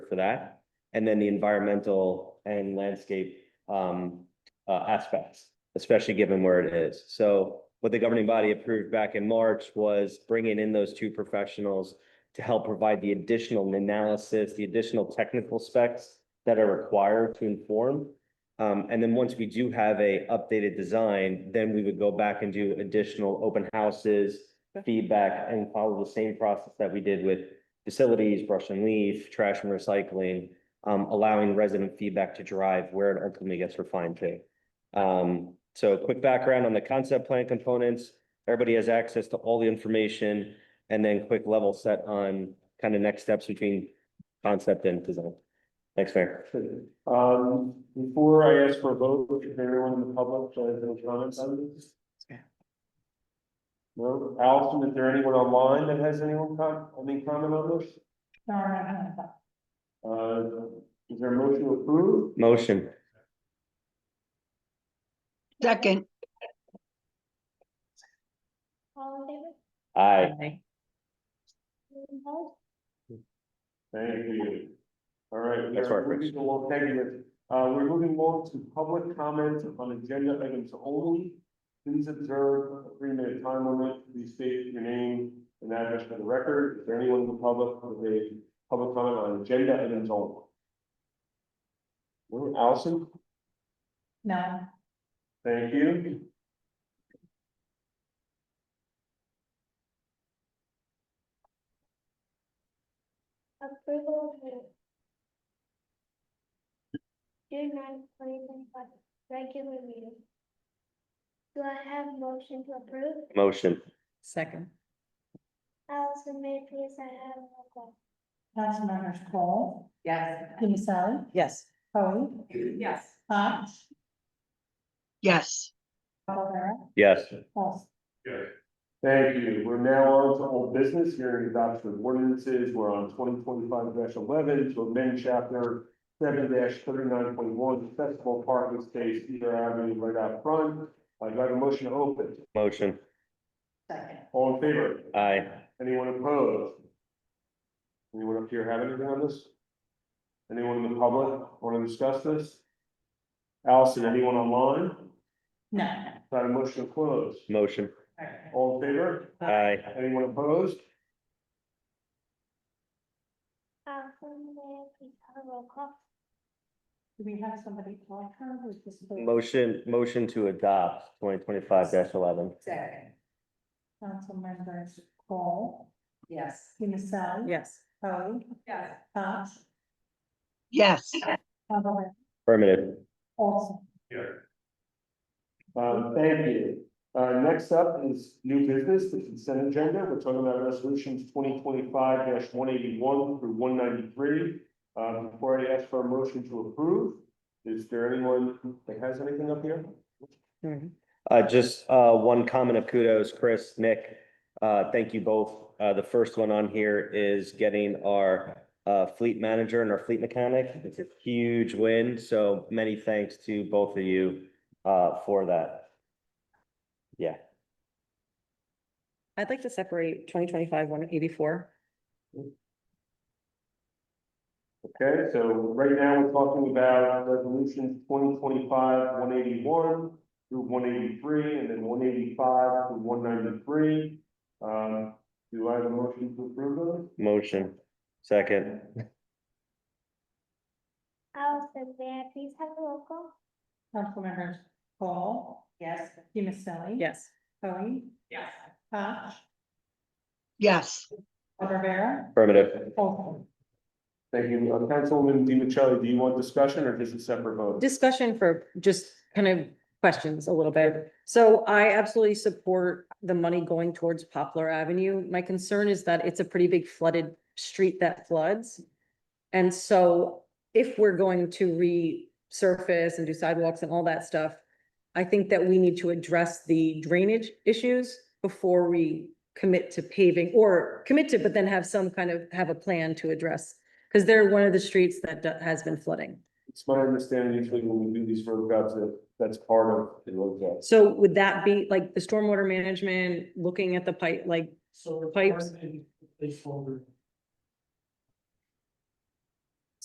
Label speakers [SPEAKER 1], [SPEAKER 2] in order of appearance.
[SPEAKER 1] for that. And then the environmental and landscape um uh aspects, especially given where it is. So what the governing body approved back in March was bringing in those two professionals to help provide the additional analysis, the additional technical specs that are required to inform. Um, and then once we do have a updated design, then we would go back and do additional open houses, feedback, and follow the same process that we did with facilities, brush and leaf, trash and recycling, um, allowing resident feedback to drive where it ultimately gets refined to. Um, so quick background on the concept plan components. Everybody has access to all the information and then quick level set on kind of next steps between concept and design. Thanks, Mayor.
[SPEAKER 2] Um, before I ask for a vote, if anyone in the public has any comments on this? No, Allison, is there anyone online that has anyone com, any comment on this? Uh, is there a motion to approve?
[SPEAKER 1] Motion.
[SPEAKER 3] Second,
[SPEAKER 4] All in favor?
[SPEAKER 1] Aye.
[SPEAKER 4] Anyone opposed?
[SPEAKER 2] Thank you. All right. we
[SPEAKER 1] That's
[SPEAKER 2] are
[SPEAKER 1] our first.
[SPEAKER 2] moving along- Thank you. Uh, we're moving on to public comments on agenda items only. Please observe a three minute time limit. Please state your name and address for the record. Is there anyone in the public with a public comment on agenda items only? Well, Allison,
[SPEAKER 5] No,
[SPEAKER 2] thank you.
[SPEAKER 4] Approval of minutes. June ninth, twenty twenty five, regular meeting. Do I have a motion to approve?
[SPEAKER 1] Motion.
[SPEAKER 5] second.
[SPEAKER 4] Allison, may I please I have a roll call?
[SPEAKER 6] Councilmembers Cole,
[SPEAKER 5] Yes.
[SPEAKER 6] Pinisari,
[SPEAKER 5] Yes.
[SPEAKER 6] Poe,
[SPEAKER 5] Yes.
[SPEAKER 6] Hotch,
[SPEAKER 3] yes.
[SPEAKER 6] Calavera,
[SPEAKER 1] Yes.
[SPEAKER 6] Paulson.
[SPEAKER 2] Thank you. We're now on to old business here in adoption of ordinances. We're on twenty twenty-five eleven to amend chapter seven thirty-nine point one, festival parking space, either avenue right out front. I'd like a motion to open.
[SPEAKER 1] Motion.
[SPEAKER 5] Second.
[SPEAKER 2] All in favor?
[SPEAKER 1] Aye.
[SPEAKER 2] Anyone opposed? Anyone up here have anything on this? Anyone in the public want to discuss this? Allison, anyone online?
[SPEAKER 6] No,
[SPEAKER 2] Got a motion to close.
[SPEAKER 1] Motion.
[SPEAKER 2] All in favor?
[SPEAKER 1] Aye.
[SPEAKER 2] Anyone opposed?
[SPEAKER 4] Allison, may I please have a roll call?
[SPEAKER 6] do we have somebody on her who's disability?
[SPEAKER 1] Motion, motion to adopt twenty twenty-five eleven.
[SPEAKER 5] Second.
[SPEAKER 6] Councilmembers Cole,
[SPEAKER 5] Yes.
[SPEAKER 6] Pinisari.
[SPEAKER 5] Yes.
[SPEAKER 6] Poe,
[SPEAKER 5] Yes.
[SPEAKER 6] Hotch,
[SPEAKER 3] Yes.
[SPEAKER 6] Calavera,
[SPEAKER 1] Affirmative.
[SPEAKER 6] Paulson.
[SPEAKER 2] Um, thank you. Uh, next up is new business, the consent agenda. We're talking about resolutions twenty twenty-five one eighty-one through one ninety-three. Um, before I ask for a motion to approve, is there anyone that has anything up here?
[SPEAKER 7] Mm-hmm.
[SPEAKER 1] Uh, just, uh, one comment of kudos, Chris, Nick, uh, thank you both. Uh, the first one on here is getting our, uh, fleet manager and our fleet mechanic. It's a huge win, so many thanks to both of you, uh, for that. Yeah,
[SPEAKER 7] I'd like to separate twenty twenty-five one eighty-four.
[SPEAKER 2] Okay, so right now we're talking about resolutions twenty twenty-five one eighty-one through one eighty-three and then one eighty-five through one ninety-three. Um, do I have a motion to approve those?
[SPEAKER 1] motion, second.
[SPEAKER 4] Allison, may I please have a roll call?
[SPEAKER 6] Councilmembers Cole,
[SPEAKER 5] Yes.
[SPEAKER 6] Pinisari.
[SPEAKER 7] Yes.
[SPEAKER 6] Poe,
[SPEAKER 5] Yes.
[SPEAKER 6] Hotch,
[SPEAKER 3] Yes.
[SPEAKER 6] Calavera,
[SPEAKER 1] Affirmative.
[SPEAKER 6] Paulson.
[SPEAKER 2] Thank you. Uh, Councilwoman DiMichelli, do you want discussion or just a separate vote?
[SPEAKER 7] Discussion for just kind of questions a little bit. So I absolutely support the money going towards Poplar Avenue. My concern is that it's a pretty big flooded street that floods. And so if we're going to resurface and do sidewalks and all that stuff, I think that we need to address the drainage issues before we commit to paving or commit to, but then have some kind of, have a plan to address. Because they're one of the streets that do- has been flooding.
[SPEAKER 2] It's my understanding usually when we do these roadcuts, that that's part of the roadcuts.
[SPEAKER 7] So would that be like the stormwater management, looking at the pipe, like,
[SPEAKER 8] So.
[SPEAKER 7] Pipes.
[SPEAKER 8] They folder